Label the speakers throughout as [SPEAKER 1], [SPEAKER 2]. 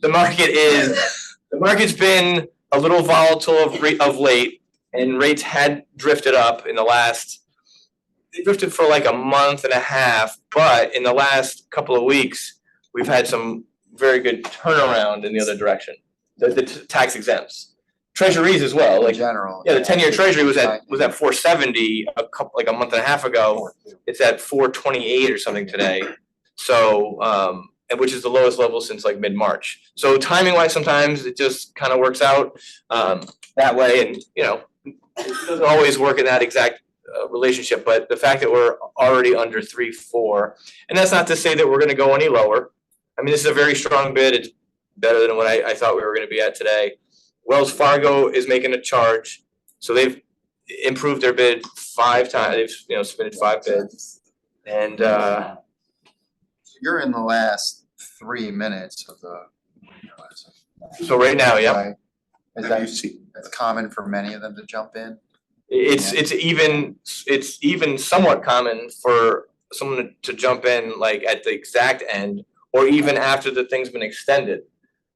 [SPEAKER 1] the market is, the market's been a little volatile of re- of late and rates had drifted up in the last they drifted for like a month and a half, but in the last couple of weeks, we've had some very good turnaround in the other direction. The the t- tax exempts, treasuries as well,
[SPEAKER 2] in
[SPEAKER 1] like
[SPEAKER 2] general.
[SPEAKER 1] yeah, the ten-year treasury was
[SPEAKER 2] Right.
[SPEAKER 1] at, was at four seventy a couple, like a month and a half ago. It's at four twenty-eight or something today. So, um, and which is the lowest level since like mid-March. So timing wise, sometimes it just kind of works out, um, that way and, you know, it doesn't always work in that exact, uh, relationship, but the fact that we're already under three, four, and that's not to say that we're gonna go any lower. I mean, this is a very strong bid. It's better than what I, I thought we were gonna be at today. Wells Fargo is making a charge. So they've improved their bid five times, they've, you know, submitted five bids. And uh,
[SPEAKER 2] You're in the last three minutes of the.
[SPEAKER 1] so right now, Oh, yeah,
[SPEAKER 2] Right? Is that, that's common for many of them to jump in?
[SPEAKER 1] it's it's even, it's even somewhat common for someone to jump in like at the exact end or even after the thing's been extended.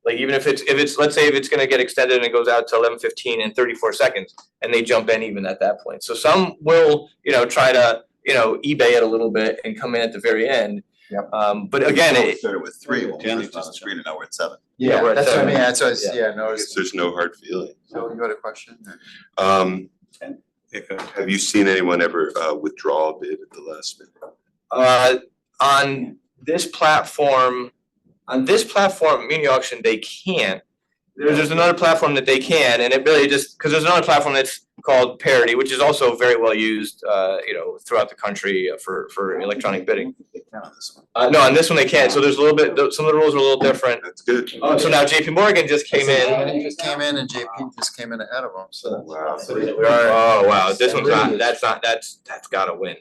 [SPEAKER 1] Like even if it's, if it's, let's say if it's gonna get extended and it goes out to eleven fifteen and thirty-four seconds and they jump in even at that point. So some will, you know, try to, you know, eBay it a little bit and come in at the very end.
[SPEAKER 2] Yep.
[SPEAKER 1] Um, but again, it,
[SPEAKER 3] Started with three, when we
[SPEAKER 4] Ten is
[SPEAKER 3] first
[SPEAKER 4] just
[SPEAKER 3] on the screen, and now we're at seven.
[SPEAKER 1] Yeah, we're at
[SPEAKER 2] That's what I
[SPEAKER 1] seven.
[SPEAKER 2] mean, that's what I was,
[SPEAKER 1] Yeah.
[SPEAKER 2] yeah,
[SPEAKER 3] I
[SPEAKER 2] notice,
[SPEAKER 3] guess There's no hard feeling.
[SPEAKER 2] so you got a question? or-
[SPEAKER 4] Um,
[SPEAKER 3] Ten.
[SPEAKER 4] have you seen anyone ever uh withdraw a bid at the last minute?
[SPEAKER 1] Uh, on this platform, on this platform, muni auction, they can't. There's, there's another platform that they can, and it really just, cause there's another platform that's called Parity, which is also very well used, uh, you know, throughout the country uh, for, for electronic bidding.
[SPEAKER 3] They count on this one.
[SPEAKER 1] Uh, no, on this one they can't, so there's a little bit, some of the rules are a little different.
[SPEAKER 4] That's good.
[SPEAKER 1] Uh, so now JP Morgan just came in.
[SPEAKER 2] He just came in and JP just came in ahead of him, so.
[SPEAKER 4] Wow.
[SPEAKER 1] We are, oh wow, this one's not, that's not, that's, that's gotta win.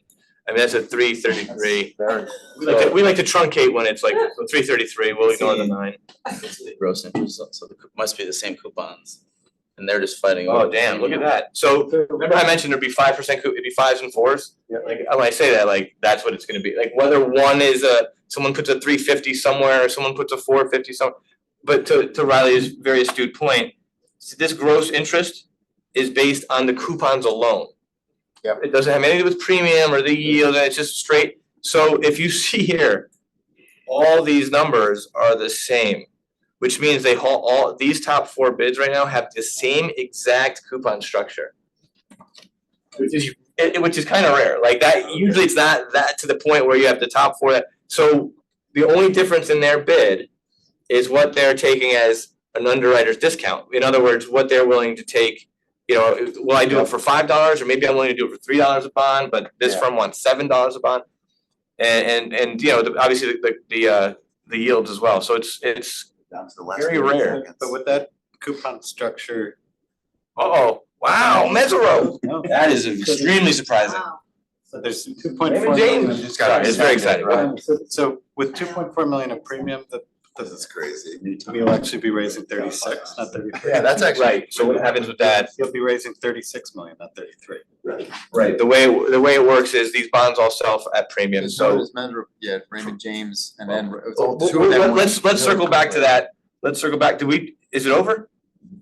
[SPEAKER 1] I mean, that's a three thirty-three.
[SPEAKER 2] Very-
[SPEAKER 1] We like to, we like to truncate when it's like three thirty-three, we'll ignore the nine.
[SPEAKER 5] gross interest, so- so the coup- must be the same coupons. And they're just fighting.
[SPEAKER 1] Oh
[SPEAKER 5] over-
[SPEAKER 1] damn, look at that. So remember I mentioned there'd be five percent, it'd be fives and fours?
[SPEAKER 2] Yeah.
[SPEAKER 1] Like, when I say that, like, that's what it's gonna be. Like whether one is a, someone puts a three fifty somewhere, or someone puts a four fifty some. But to to Riley's very astute point, s- this gross interest is based on the coupons alone.
[SPEAKER 2] Yep.
[SPEAKER 1] It doesn't have anything to do with premium or the yield, and it's just straight. So if you see here, all these numbers are the same. Which means they haul all, these top four bids right now have the same exact coupon structure. Which is, it- it- which is kind of rare, like that, usually it's not that to the point where you have the top four that, so the only difference in their bid is what they're taking as an underwriter's discount, in other words, what they're willing to take, you know, will I do it for five dollars, or maybe I'm willing to do it for three dollars a bond, but this
[SPEAKER 2] Yeah.
[SPEAKER 1] firm wants seven dollars a bond. And and and you know, the obviously the the uh the yields as well, so it's it's,
[SPEAKER 3] Down to the last.
[SPEAKER 1] Very
[SPEAKER 3] three
[SPEAKER 1] rare.
[SPEAKER 3] seconds.
[SPEAKER 6] But with that coupon structure.
[SPEAKER 1] oh, wow, Mezzaro.
[SPEAKER 6] no,
[SPEAKER 5] That is extremely surprising.
[SPEAKER 6] so There's two point
[SPEAKER 1] Raymond
[SPEAKER 6] four
[SPEAKER 1] James.
[SPEAKER 6] million.
[SPEAKER 2] I just got
[SPEAKER 1] Sorry, it's very exciting,
[SPEAKER 2] right?
[SPEAKER 6] So- So with two point four million of premium, the,
[SPEAKER 3] This is crazy.
[SPEAKER 6] the- we'll actually be raising thirty six, not thirty three.
[SPEAKER 1] Yeah, that's actually. Right, so what happens with that,
[SPEAKER 6] You'll be raising thirty six million, not thirty three.
[SPEAKER 1] right, the way the way it works is these bonds all sell at premium,
[SPEAKER 2] It's known
[SPEAKER 1] so.
[SPEAKER 2] as Mendro- yeah, Raymond James and then. it was all
[SPEAKER 1] Well,
[SPEAKER 2] two of them
[SPEAKER 1] let-
[SPEAKER 2] were-
[SPEAKER 1] Let's let's circle back to that, let's circle back, do we, is it over?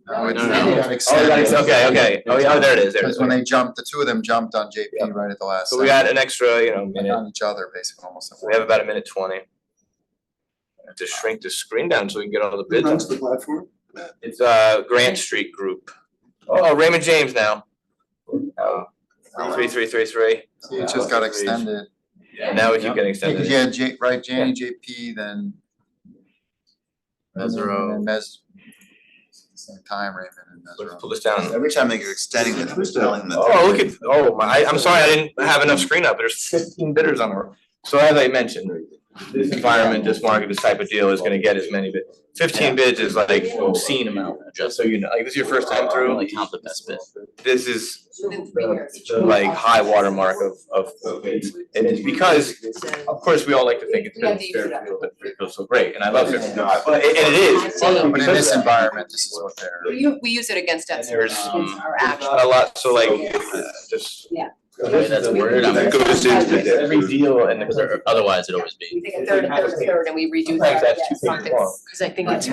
[SPEAKER 2] No, it's-
[SPEAKER 1] No, no,
[SPEAKER 2] it got
[SPEAKER 1] Oh, we
[SPEAKER 2] extended.
[SPEAKER 1] got ex- okay, okay, oh, yeah, oh, there it is, there it
[SPEAKER 2] Because
[SPEAKER 1] is.
[SPEAKER 2] when they jumped, the two of them jumped on JP right at the last.
[SPEAKER 1] So we
[SPEAKER 2] second.
[SPEAKER 1] got an extra, you know, minute,
[SPEAKER 2] On each other, basically, almost.
[SPEAKER 1] we have about a minute twenty. I Have to shrink the screen down so we can get all the bids.
[SPEAKER 4] runs
[SPEAKER 1] the platform? It's uh Grant Street Group. Oh, Raymond James now. Oh, Three, three, three, three,
[SPEAKER 2] See, It just got extended.
[SPEAKER 1] and now we keep getting extended.
[SPEAKER 2] Yeah, J, right, Janie, JP, then.
[SPEAKER 5] Mesro.
[SPEAKER 2] And then Mes. Same time, Raymond and
[SPEAKER 1] Let's
[SPEAKER 2] Mesro.
[SPEAKER 1] pull this down.
[SPEAKER 3] Every time they are extending it, I'm telling them.
[SPEAKER 1] Oh, look at, oh, my, I- I'm sorry, I didn't have enough screen up, there's fifteen bidders on there. So as I mentioned, this environment, this market, this type of deal is gonna get as many bid, fifteen bids is like obscene amount, just so you know, like, this is your first time
[SPEAKER 5] I
[SPEAKER 1] through,
[SPEAKER 5] only count the best bid.
[SPEAKER 1] this is the like high watermark of of of bids. And it's because, of course, we all like to think it's been Fairfield, but Fairfield's so great, and I love Fairfield, but it and it is.
[SPEAKER 7] But
[SPEAKER 2] But in
[SPEAKER 1] because
[SPEAKER 2] this
[SPEAKER 1] of that.
[SPEAKER 2] environment, this is what they're.
[SPEAKER 7] We u- we use it against us.
[SPEAKER 1] There's,
[SPEAKER 5] um,
[SPEAKER 7] Our
[SPEAKER 1] There's
[SPEAKER 7] action.
[SPEAKER 1] not a lot, so like, uh, just.
[SPEAKER 7] Yeah.
[SPEAKER 5] The way that's worded, I'm
[SPEAKER 4] That
[SPEAKER 5] like,
[SPEAKER 4] goes into the debt.
[SPEAKER 1] Every deal and the.
[SPEAKER 5] because other- otherwise it'd always be.
[SPEAKER 7] We take a third, a third, a third, and we redo
[SPEAKER 1] Sometimes
[SPEAKER 7] that,
[SPEAKER 1] that's
[SPEAKER 7] yes.
[SPEAKER 1] two pages long.
[SPEAKER 7] Cause I think it's